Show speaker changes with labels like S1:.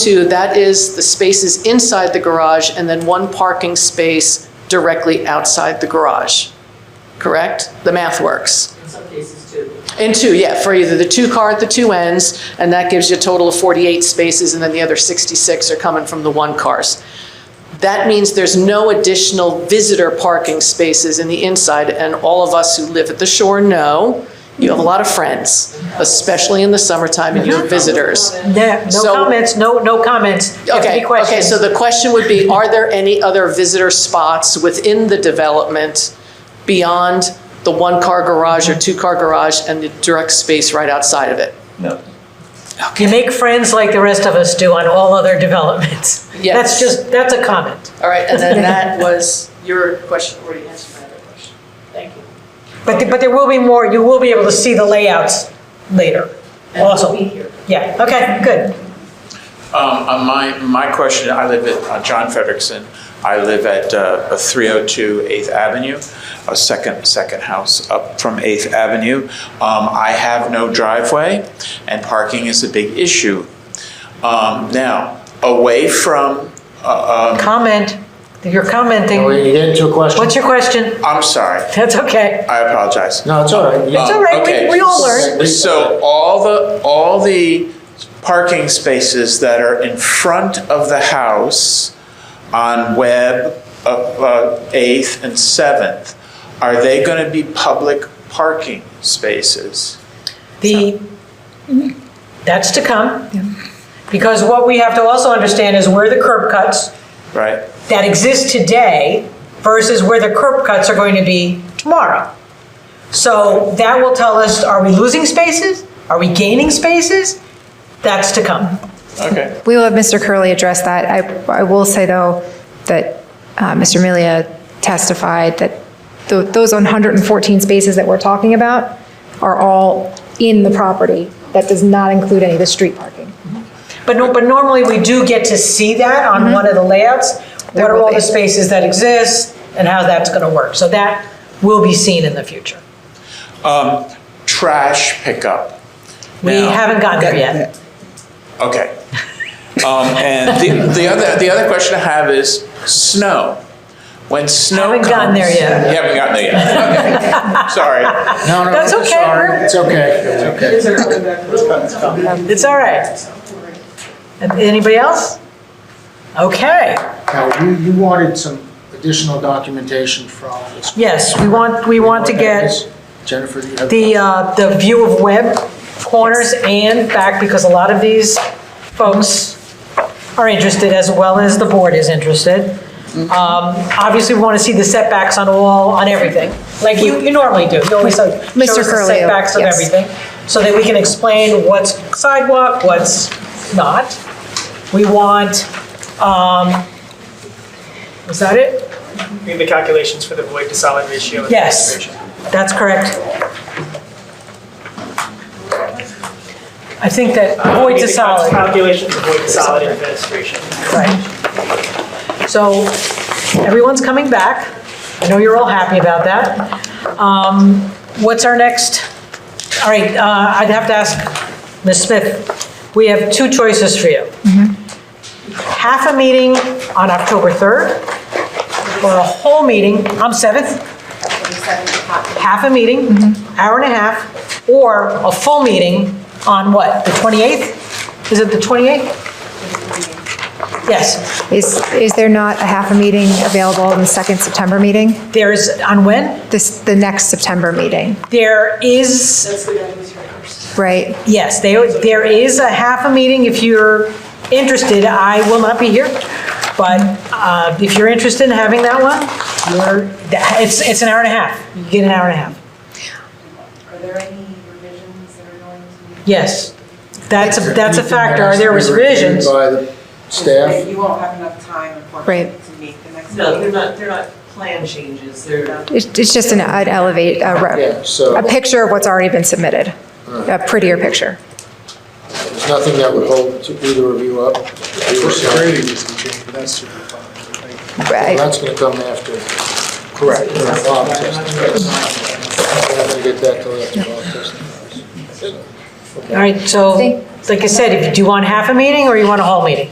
S1: Two, that is the spaces inside the garage and then one parking space directly outside the garage, correct? The math works.
S2: in some cases too.
S1: And two, yeah, for either the two car at the two ends, and that gives you a total of 48 spaces, and then the other 66 are coming from the one cars. That means there's no additional visitor parking spaces in the inside, and all of us who live at the shore know, you have a lot of friends, especially in the summertime, and you're visitors.
S3: Yeah,
S1: So-
S3: no comments, no, no comments. If
S1: Okay,
S3: any
S1: okay,
S3: questions?
S1: so the question would be, are there any other visitor spots within the development beyond the one-car garage or two-car garage and the direct space right outside of it?
S4: No.
S3: You make friends like the rest of us do on all other developments.
S1: Yes.
S3: That's just, that's a comment.
S1: All right, and then that was your question, already answered my other question. Thank you.
S3: But, the- but there will be more, you will be able to see the layouts later also. Yeah, okay, good.
S5: Um, on my, my question, I live at uh, John Frederickson. I live at uh, 302 8th Avenue, a second, second house up from 8th Avenue. Um, I have no driveway, and parking is a big issue. Um, now, away from, uh, um,
S3: Comment, you're commenting.
S6: We get into a question?
S3: What's your question?
S5: I'm sorry,
S3: That's okay.
S5: I apologize.
S6: No, it's all right. You-
S3: It's all right, we-
S5: okay.
S3: we all learn.
S5: So all the, all the parking spaces that are in front of the house on Webb, uh, uh, 8th and 7th, are they going to be public parking spaces?
S3: The, that's to come. Because what we have to also understand is where the curb cuts
S5: Right?
S3: that exist today versus where the curb cuts are going to be tomorrow. So that will tell us, are we losing spaces? Are we gaining spaces? That's to come.
S5: Okay.
S7: We will have Mr. Curley address that. I, I will say, though, that uh, Mr. Melia testified that tho- those 114 spaces that we're talking about are all in the property. That does not include any of the street parking.
S3: But no, but normally we do get to see that on one of the layouts. What
S7: Mm-hmm. There
S3: are
S7: will
S3: all the
S7: be.
S3: spaces that exist and how that's going to work? So that will be seen in the future.
S5: Trash pickup.
S3: We
S5: Now-
S3: haven't gotten there yet.
S5: Okay. Um, And the, the other, the other question I have is snow. When snow
S3: Haven't
S5: comes.
S3: gotten there yet.
S5: You haven't gotten there yet. Okay. Sorry.
S6: No, no,
S3: That's
S6: it's
S3: okay,
S6: all right.
S3: we're-
S6: It's okay. It's okay.
S3: It's all right. Anybody else? Okay.
S6: Now, you, you wanted some additional documentation from this.
S3: Yes, we want, we want to get.
S6: Jennifer, you have.
S3: the, uh, the view of web corners and back, because a lot of these folks are interested as well as the board is interested.
S7: Mm-hmm.
S3: Um, Obviously, we want to see the setbacks on all, on everything, like you, you normally do. You always uh, show us
S7: Mr.
S3: the
S7: Curley,
S3: setbacks of
S7: yes.
S3: everything, so that we can explain what's sidewalk, what's not. We want, um, was that it?
S8: Doing the calculations for the void to solid ratio. and
S3: Yes.
S8: concentration.
S3: That's correct. I think that void
S8: Doing
S3: to
S8: the
S3: solid,
S8: Calculations of void to solid administration.
S3: right. So everyone's coming back. I know you're all happy about that. Um, What's our next? All right, uh, I'd have to ask Ms. Smith, we have two choices for you. Half a meeting on October 3rd, or a whole meeting, on 7th, half a meeting, hour and a half, or a full meeting on what, the 28th? Is it the 28th? Yes,
S7: Is, is there not a half a meeting available in the second September meeting?
S3: there's, on when?
S7: This, the next September meeting,
S3: There is,
S2: That's the guy who's right first.
S7: right?
S3: yes, there, there is a half a meeting if you're interested. I will not be here, but uh, if you're interested in having that one, you're, it's, it's an hour and a half. You get an hour and a half.
S9: Are there any revisions that are going to be?
S3: Yes, that's, a
S6: Is there
S3: that's a
S6: anything that
S3: factor.
S6: has
S3: Are
S6: to
S3: there
S6: be
S3: was
S6: reviewed
S3: revisions?
S6: By the
S9: That
S6: staff?
S9: You won't have enough time, unfortunately,
S7: Right.
S9: to meet the next
S2: No, they're
S9: meeting.
S2: not, they're not plan changes, they're,
S7: It's it's just an I'd elevate, a
S6: Yeah,
S7: re- a
S6: so
S7: picture of what's already been submitted, a prettier picture.
S6: there's nothing that would hold to either of you up. Grading isn't changed, that's super
S7: Right.
S6: That's gonna come after. Correct. Bob testing. We're not gonna get that till after Bob testing.
S3: All right, so,
S7: See?
S3: like I said, if- do you want half a meeting or you want a whole meeting?